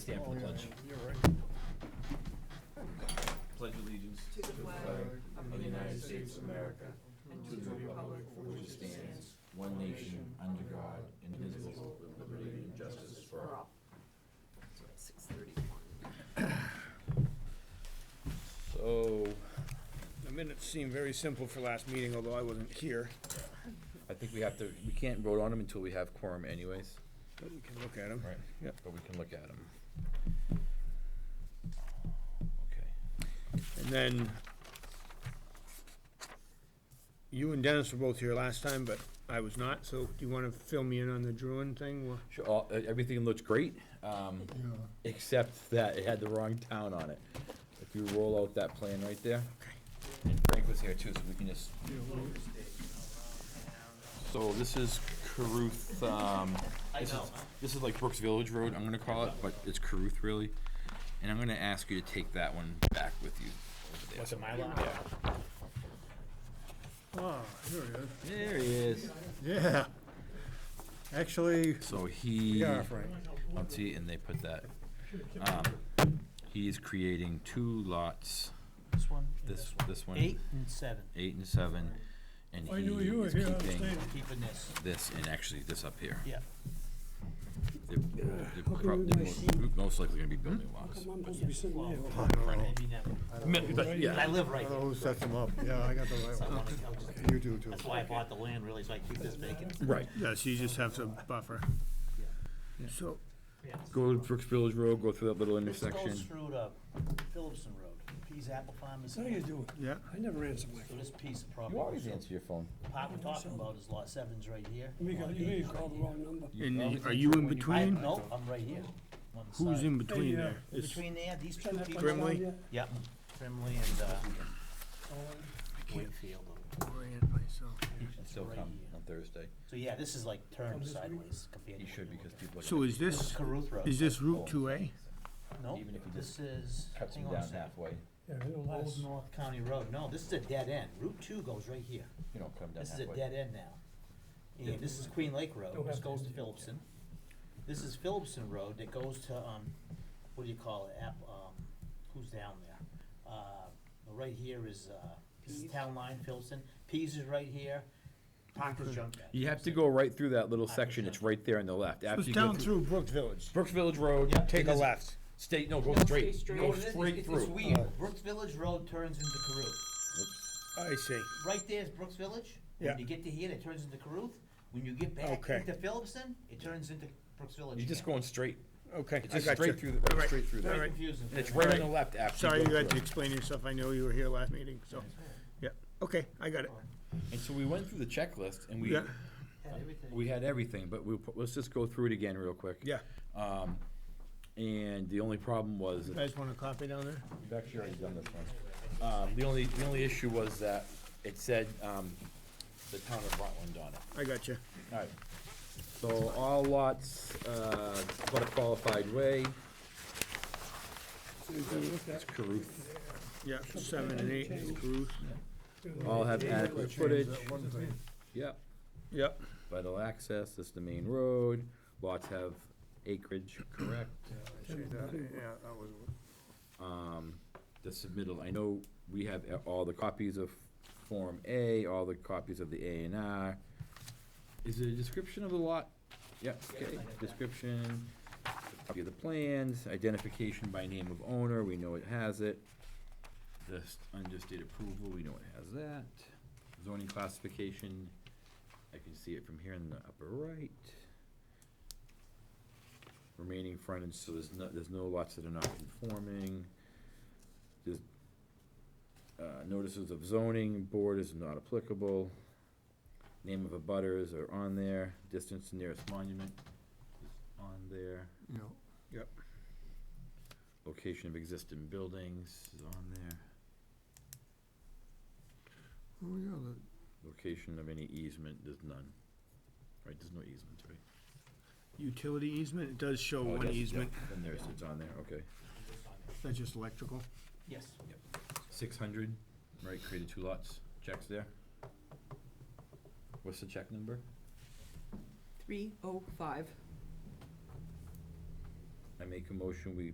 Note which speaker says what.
Speaker 1: stand for the pledge.
Speaker 2: Oh, You're right.
Speaker 1: Pledge allegiance.
Speaker 3: to the flag of the United States of America and to the republic for which it stands,
Speaker 1: one nation, under God, indivisible, with liberty and justice for all.
Speaker 3: Six thirty-one.
Speaker 2: So, the minutes seem very simple for last meeting, although I wasn't here,
Speaker 4: I think we have to, we can't vote on them until we have quorum anyways,
Speaker 2: but we can look at them.
Speaker 4: right?
Speaker 2: Yep.
Speaker 4: But we can look at them. Okay.
Speaker 2: And then, you and Dennis were both here last time, but I was not, so do you wanna fill me in on the Druin thing? Well,
Speaker 4: Sure, all, e- everything looks great, um, except that it had the wrong town on it. If you roll out that plan right there. And Frank was here too, so we can just. So this is Caruth, um, this is, this is like Brooks Village Road, I'm gonna call it, but it's Caruth really. And I'm gonna ask you to take that one back with you.
Speaker 1: What's it, my lot?
Speaker 5: Ah, here it is.
Speaker 4: There he is.
Speaker 5: Yeah. Actually,
Speaker 4: So he.
Speaker 5: yeah, Frank.
Speaker 4: I'll see, and they put that, um, he is creating two lots,
Speaker 6: This one? and
Speaker 4: this,
Speaker 6: one.
Speaker 4: this one.
Speaker 6: Eight and seven,
Speaker 4: Eight and seven, and
Speaker 5: I knew
Speaker 4: he
Speaker 5: you were
Speaker 4: is
Speaker 5: here, I was
Speaker 4: keeping
Speaker 5: staying.
Speaker 6: keeping this,
Speaker 4: this, and actually this up here.
Speaker 6: yeah.
Speaker 4: They're- They're prob- they're most- most likely gonna be building lots.
Speaker 6: Well,
Speaker 5: know.
Speaker 6: Maybe never.
Speaker 4: Mi- but
Speaker 6: I
Speaker 4: yeah,
Speaker 6: live
Speaker 5: I
Speaker 6: right
Speaker 5: don't know
Speaker 6: here,
Speaker 5: who sets them up. Yeah, I got the
Speaker 6: so I
Speaker 5: right one.
Speaker 6: wanna- I'll just-
Speaker 5: You do too.
Speaker 6: that's why I bought the land, really, so I keep this vacant.
Speaker 4: Right,
Speaker 2: yeah, so you just have some buffer. So,
Speaker 6: Yeah.
Speaker 4: go to Brooks Village Road, go through that little
Speaker 6: This goes
Speaker 4: intersection.
Speaker 6: through to Phillipson Road, Pease Apple Farm is,
Speaker 5: How
Speaker 6: so
Speaker 5: you doing?
Speaker 2: yeah,
Speaker 5: I never answer my phone.
Speaker 6: this piece of property.
Speaker 4: You always answer your phone.
Speaker 6: The Part we're talking about is lot seven's right here.
Speaker 5: You
Speaker 6: lot
Speaker 5: got- you may
Speaker 6: eight's
Speaker 5: have called
Speaker 6: right here.
Speaker 5: the wrong number.
Speaker 2: and are you in
Speaker 6: I,
Speaker 2: between?
Speaker 6: no, I'm right here, on the
Speaker 2: Who's
Speaker 6: side.
Speaker 2: in between
Speaker 5: Hey, uh,
Speaker 2: there? Is-
Speaker 6: Between there, these two
Speaker 5: Send that
Speaker 6: people.
Speaker 5: one down
Speaker 2: Brimley?
Speaker 5: yet?
Speaker 6: Yep, Brimley and, uh,
Speaker 5: Oh,
Speaker 6: Wakefield.
Speaker 4: Still come on Thursday.
Speaker 6: So yeah, Oh, this is like turned sideways compared to.
Speaker 4: He
Speaker 6: what
Speaker 4: should,
Speaker 6: you're
Speaker 4: because
Speaker 6: looking
Speaker 4: people are.
Speaker 2: So
Speaker 4: gonna
Speaker 2: is this,
Speaker 6: at. Caruth Road.
Speaker 2: is this Route two A?
Speaker 6: No,
Speaker 4: even if you
Speaker 6: this is,
Speaker 4: Cuts
Speaker 6: hang
Speaker 4: them
Speaker 6: on a
Speaker 4: down
Speaker 6: second.
Speaker 4: halfway,
Speaker 5: Yeah, it'll
Speaker 6: Old
Speaker 5: last.
Speaker 6: North County Road, no, this is a dead end, Route two goes right here,
Speaker 4: you know, come down
Speaker 6: this is a
Speaker 4: halfway.
Speaker 6: dead end now. And this is Queen Lake Road,
Speaker 5: Don't
Speaker 6: this
Speaker 5: have to
Speaker 6: goes to
Speaker 5: end it,
Speaker 6: Phillipson. This is Phillipson Road that goes to, um, what do you call it, App, um, who's down there? Uh, right here is, uh, this is town line, Phillipson, Pease is right here, Parker's Junkyard.
Speaker 4: You have to go right through that little section, it's right there on the left. After
Speaker 2: It's
Speaker 4: you go
Speaker 2: down through Brooks Village.
Speaker 4: Brooks Village Road, take a left, stay, no, go straight, go
Speaker 6: It's-
Speaker 4: straight
Speaker 6: it's-
Speaker 4: through.
Speaker 6: It's weird, Brooks Village Road turns into Caruth.
Speaker 2: I see.
Speaker 6: Right there is Brooks Village.
Speaker 2: Yeah.
Speaker 6: When you get to here, it turns into Caruth. When you get back
Speaker 2: Okay.
Speaker 6: into Phillipson, it turns into Brooks Village
Speaker 4: You're just
Speaker 6: again.
Speaker 4: going straight,
Speaker 2: Okay,
Speaker 4: it's
Speaker 2: I
Speaker 4: just
Speaker 2: got you.
Speaker 4: straight through, the-
Speaker 2: All right.
Speaker 4: straight through
Speaker 2: All
Speaker 4: there.
Speaker 2: right.
Speaker 6: Very confusing.
Speaker 4: And it's right on the
Speaker 2: Alright.
Speaker 4: left after
Speaker 2: Sorry
Speaker 4: you
Speaker 2: you
Speaker 4: go
Speaker 2: had to
Speaker 4: through.
Speaker 2: explain yourself, I know you were here last meeting, so, yeah, okay, I got it.
Speaker 4: And so we went through the checklist and we,
Speaker 2: Yeah.
Speaker 6: Had everything.
Speaker 4: we had everything, but we, let's just go through it again real quick.
Speaker 2: Yeah,
Speaker 4: Um, and the only problem was,
Speaker 2: you guys want a copy down there?
Speaker 4: we've actually already done this one. Um, the only, the only issue was that it said, um, the town of Rutland on it.
Speaker 2: I got you.
Speaker 4: Alright, so all lots, uh, but a qualified way,
Speaker 5: So you can look
Speaker 4: it's
Speaker 5: at-
Speaker 4: Caruth,
Speaker 2: Yeah, seven and eight is approved.
Speaker 4: all have adequate footage,
Speaker 5: That one thing.
Speaker 4: yep.
Speaker 2: Yep,
Speaker 4: Vital access, this is the main road, lots have acreage, correct.
Speaker 2: yeah, that was,
Speaker 4: Um, the submittal, I know we have a- all the copies of Form A, all the copies of the A and R. Is it a description of the lot? Yeah, okay, description, copy of the plans, identification by name of owner, we know it has it. This understated approval, we know it has that. Zoning classification, I can see it from here in the upper right. Remaining frontage, so there's no, there's no lots that are not conforming. There's, uh, notices of zoning board is not applicable. Name of abutters are on there, distance to nearest monument is on there.
Speaker 5: No.
Speaker 4: Location of existing buildings is on there.
Speaker 5: Oh, yeah, that-
Speaker 4: Location of any easement, there's none. Right, there's no easement, right?
Speaker 2: utility easement, it does show
Speaker 4: Oh, I
Speaker 2: one
Speaker 4: guess, yeah,
Speaker 2: easement,
Speaker 4: Then there's, it's on there, okay.
Speaker 2: that's just electrical.
Speaker 6: Yes.
Speaker 4: Six hundred, right, created two lots, checks there. What's the check number?
Speaker 3: Three oh five.
Speaker 4: I make a motion, we